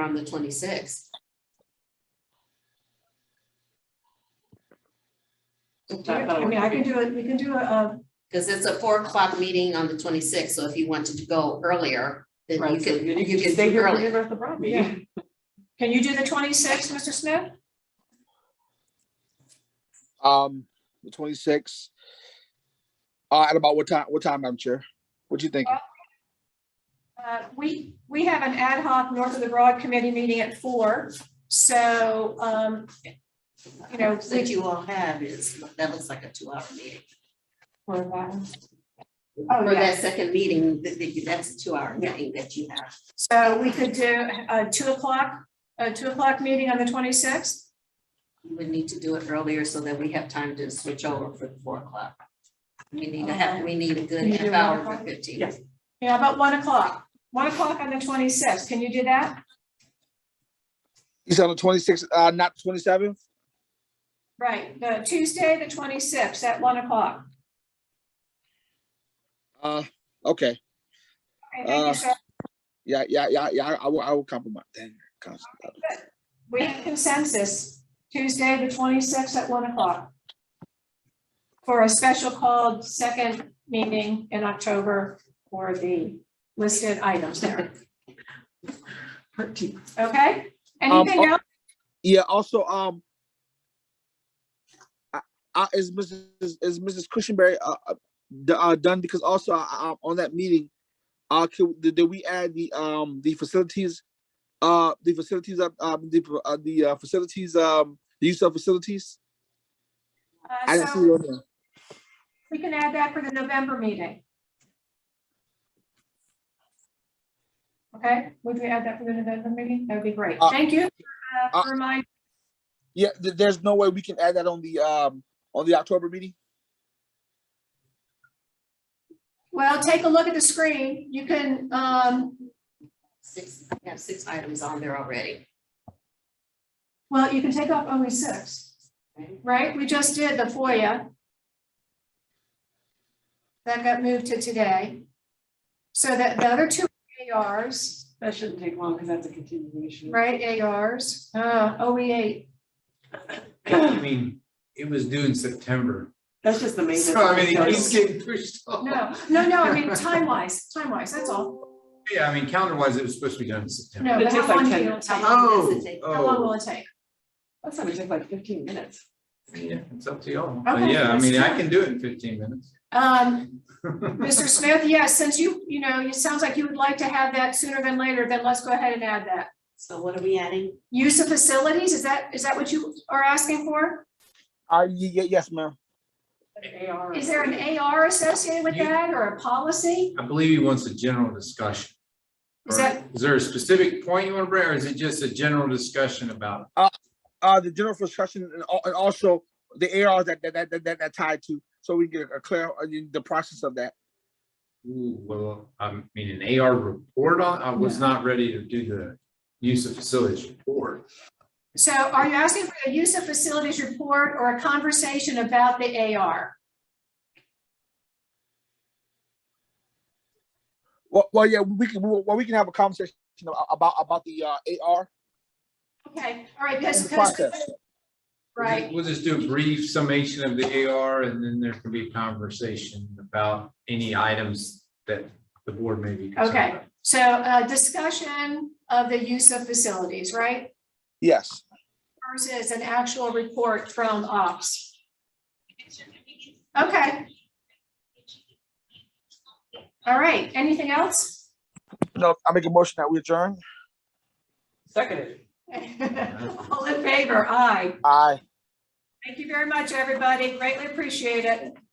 on the twenty-sixth. I mean, I can do it, we can do a, uh, Because it's a four o'clock meeting on the twenty-sixth, so if you wanted to go earlier, then you Right, so could, you you you could stay do here earlier. for the Brown yeah. meeting. Can you do the twenty-sixth, Mr. Smith? Um, the twenty-sixth. Uh, at about what time, what time, Madam Chair? What you thinking? Uh, we, we have an ad hoc North of the Broad Committee meeting at four, so, um, you know, That you all have is, that looks like a two-hour meeting. for that one. Oh, For yeah. that second meeting, that- that- that's a two-hour meeting that you have. So we could do a two o'clock, a two o'clock meeting on the twenty-sixth? You would need to do it earlier so that we have time to switch over for the four o'clock. We need to have, we need a good You do half one hour o'clock? for fifteen. Yes. Yeah, about one o'clock, one o'clock on the twenty-sixth, can you do that? You said on the twenty-sixth, uh, not twenty-seventh? Right, the Tuesday, the twenty-sixth, at one o'clock. Uh, okay, Okay, thank you, Uh, sir. yeah, yeah, yeah, yeah, I- I will, I will compromise. Dang, constant. We have consensus, Tuesday, the twenty-sixth at one o'clock. For a special called second meeting in October for the listed items there, okay? Anything oh- else? Yeah, also, um. I- I is Mrs., is is Mrs. Cushionberry, uh, uh, d- uh, done, because also, uh, uh, on that meeting, uh, could, did, did we add the, um, the facilities? Uh, the facilities, uh, um, the, uh, the, uh, facilities, um, the use of facilities? Uh, I didn't see so it on there. We can add that for the November meeting. Okay, would we add that for the November meeting? That'd be great. Uh, Thank you for, uh, uh, for reminding. Yeah, th- there's no way we can add that on the, um, on the October meeting? Well, take a look at the screen. You can, um, Six, I have six items on there already. well, you can take off only six, right? We just did the FOIA. That got moved to today. So that the other two ARs, That shouldn't take long because that's a continuation. right, ARs, uh, OE eight. I mean, it was due in September. That's just the main. So I mean, it keeps getting pushed off. No, no, no, I mean, time wise, time wise, that's all. Yeah, I mean, calendar wise, it was supposed to be done in September. No, It but takes how like long do 10 you take? How How long does Oh, it take? long oh. will it take? That's not gonna take like fifteen minutes. Yeah, it's up to y'all. But Okay, yeah, I that's mean, I fine. can do it in fifteen minutes. Um, Mr. Smith, yes, since you, you know, it sounds like you would like to have that sooner than later, then let's go ahead and add that. So what are we adding? Use of facilities, is that, is that what you are asking for? Uh, ye- ye- yes, ma'am. Is there an AR associated with You- that or a policy? I believe he wants a general discussion. Is that- Is there a specific point you want to bring, or is it just a general discussion about? it? Uh, the general discussion and al- and also the ARs that, that, that, that, that tied to, so we get a clear, uh, the process of that. Ooh, well, I mean, an AR report on, I was not ready to do the use of facilities report. So are you asking for a use of facilities report or a conversation about the AR? Well, well, yeah, we can, well, we can have a conversation a- about, about the, uh, AR. Okay, all right, and because, the process. We'll just- right, We'll just do a brief summation of the AR and then there can be a conversation about any items that the board may be. concerned Okay. about. so uh discussion of the use of facilities, right? Yes, versus an actual report from ops. Okay. All right, anything else? no, I make a motion that we adjourn. Seconded. All in favor, aye. Aye. Thank you very much, everybody. Greatly appreciate it.